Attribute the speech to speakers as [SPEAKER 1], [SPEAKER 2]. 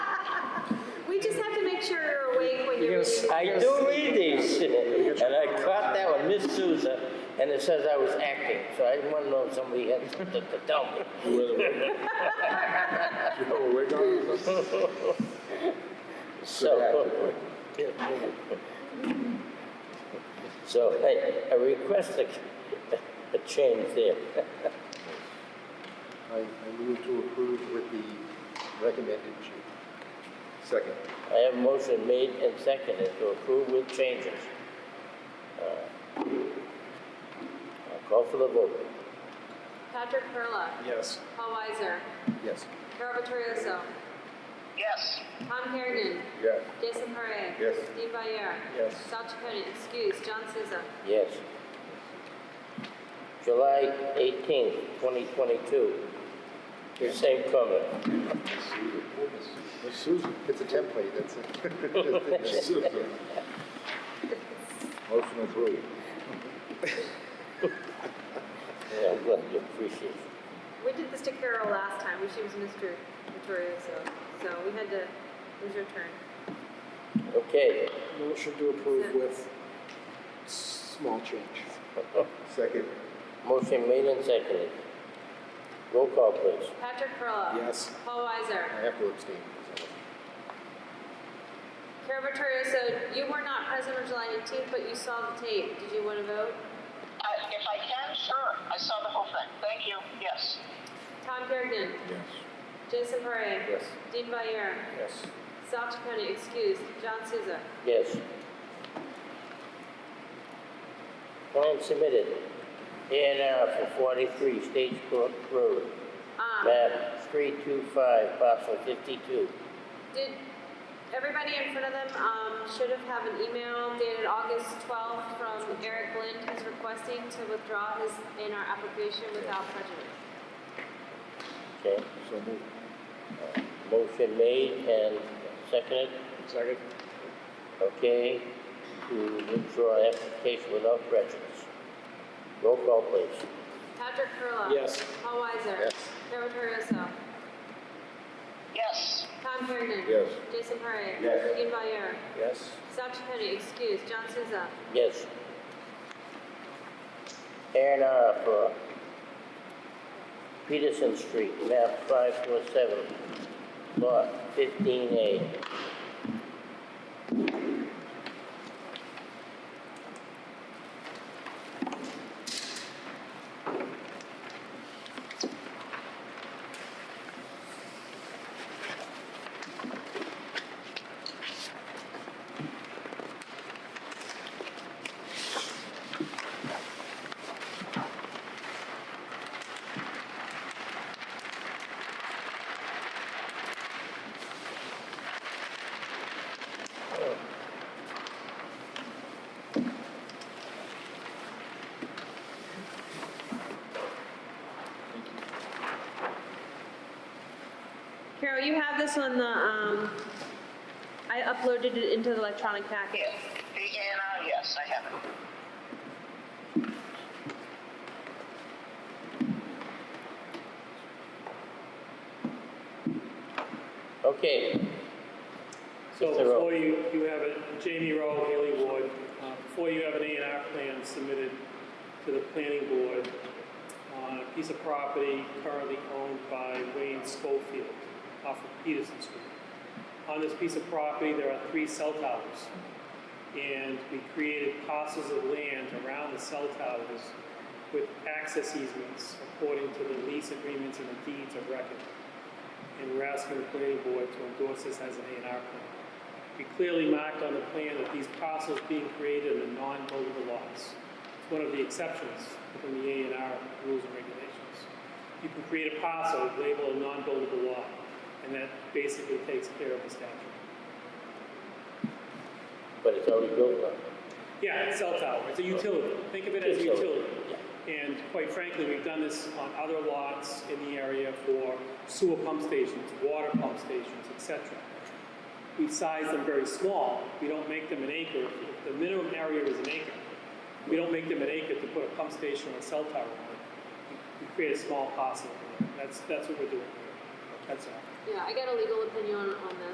[SPEAKER 1] You just have to make sure you're awake when you're
[SPEAKER 2] Yes,
[SPEAKER 1] reading.
[SPEAKER 3] I do read these, and I caught that one, Miss Souza, and it says I was acting, so I didn't want to know if somebody had something to tell me.
[SPEAKER 2] Oh, we're going with this.
[SPEAKER 3] So, so I, I request a, a change there.
[SPEAKER 4] I, I move to approve with the recommended change.
[SPEAKER 2] Second.
[SPEAKER 3] I have a motion made and seconded to approve with changes. Uh, I'll call for the vote.
[SPEAKER 1] Patrick Perla.
[SPEAKER 2] Yes.
[SPEAKER 1] Paul Weiser.
[SPEAKER 4] Yes.
[SPEAKER 1] Carol Vittorioso. Yes. Tom Hergen.
[SPEAKER 2] Yeah.
[SPEAKER 1] Jason Parre.
[SPEAKER 2] Yes.
[SPEAKER 1] Dean Valier.
[SPEAKER 2] Yes.
[SPEAKER 1] Sal Chaconi, excuse, John Souza.
[SPEAKER 3] Yes. July eighteenth, twenty twenty-two. Same comment.
[SPEAKER 2] Miss Susan.
[SPEAKER 4] It's a template, that's it.
[SPEAKER 2] Miss Susan. Motion approved.
[SPEAKER 3] Yeah, I'm glad you appreciate it.
[SPEAKER 1] We did this to Carol last time, she was Mr. Vittorioso, so we had to, it was your turn.
[SPEAKER 3] Okay,
[SPEAKER 4] Motion to approve with small change.
[SPEAKER 2] Second.
[SPEAKER 3] motion made and seconded. Roll call, please.
[SPEAKER 1] Patrick Perla.
[SPEAKER 4] Yes.
[SPEAKER 1] Paul
[SPEAKER 4] I
[SPEAKER 1] Weiser.
[SPEAKER 4] have to abstain. so.
[SPEAKER 1] Carol Vittorioso, you were not present on July 18th, but you saw the tape. Did you want to vote?
[SPEAKER 5] I- If I can, sure. I saw the whole thing. Thank you. Yes.
[SPEAKER 1] Tom Hergen.
[SPEAKER 2] Yes.
[SPEAKER 1] Jason Parre.
[SPEAKER 2] Yes.
[SPEAKER 1] Dean Valier.
[SPEAKER 2] Yes.
[SPEAKER 1] Sal Chaconi, excuse, John Souza.
[SPEAKER 3] Yes. Plan submitted. A and R for forty-three Stage Brook Road,
[SPEAKER 1] Um,
[SPEAKER 3] map three-two-five, parcel fifty-two.
[SPEAKER 1] did, everybody in front of them, um, should have have an email dated August twelfth from Eric Lind, who's requesting to withdraw his, in our application without prejudice.
[SPEAKER 3] Okay,
[SPEAKER 2] So moved.
[SPEAKER 3] motion made and seconded.
[SPEAKER 2] Second.
[SPEAKER 3] Okay, to withdraw application without prejudice. Roll call, please.
[SPEAKER 1] Patrick Perla.
[SPEAKER 4] Yes.
[SPEAKER 1] Paul Weiser.
[SPEAKER 2] Yes.
[SPEAKER 1] Carol Torioso.
[SPEAKER 5] Yes.
[SPEAKER 1] Tom Hergen.
[SPEAKER 2] Yes.
[SPEAKER 1] Jason Parre.
[SPEAKER 2] Yes.
[SPEAKER 1] Dean Valier.
[SPEAKER 2] Yes.
[SPEAKER 1] Sal Chaconi, excuse, John Souza.
[SPEAKER 3] Yes. A and R for Peterson Street, map five four seven, lot fifteen A.
[SPEAKER 1] Carol, you have this on the, um, I uploaded it into the electronic packet.
[SPEAKER 5] Yeah. The A and R, yes, I have it.
[SPEAKER 3] Okay.
[SPEAKER 6] So
[SPEAKER 3] Mr. Rowe.
[SPEAKER 6] before you, you have it, Jamie Rowe, Haley Ward, uh, before you have an A and R plan submitted to the planning board on a piece of property currently owned by Wayne Schofield off of Peterson Street. On this piece of property, there are three cell towers. And we created parcels of land around the cell towers with access easements according to the lease agreements and the deeds of record and we're asking the planning board to endorse this as an A and R plan. We clearly marked on the plan that these parcels being created are non-buildable lots. It's one of the exceptions within the A and R rules and regulations. You can create a parcel, label a non-buildable lot, and that basically takes care of the statute.
[SPEAKER 3] But it's already built up.
[SPEAKER 6] Yeah, it's cell tower, it's a utility, think of it as a
[SPEAKER 3] Utility,
[SPEAKER 6] utility. And quite frankly, we've done this on other lots in the area for sewer pump stations, water pump stations, et cetera. We size them very small, we don't make them an acre, If the minimum area is an acre. We don't make them an acre to put a pump station or a cell tower on it. We create a small parcel, that's, that's what we're doing, that's all.
[SPEAKER 1] Yeah, I got a legal opinion on this.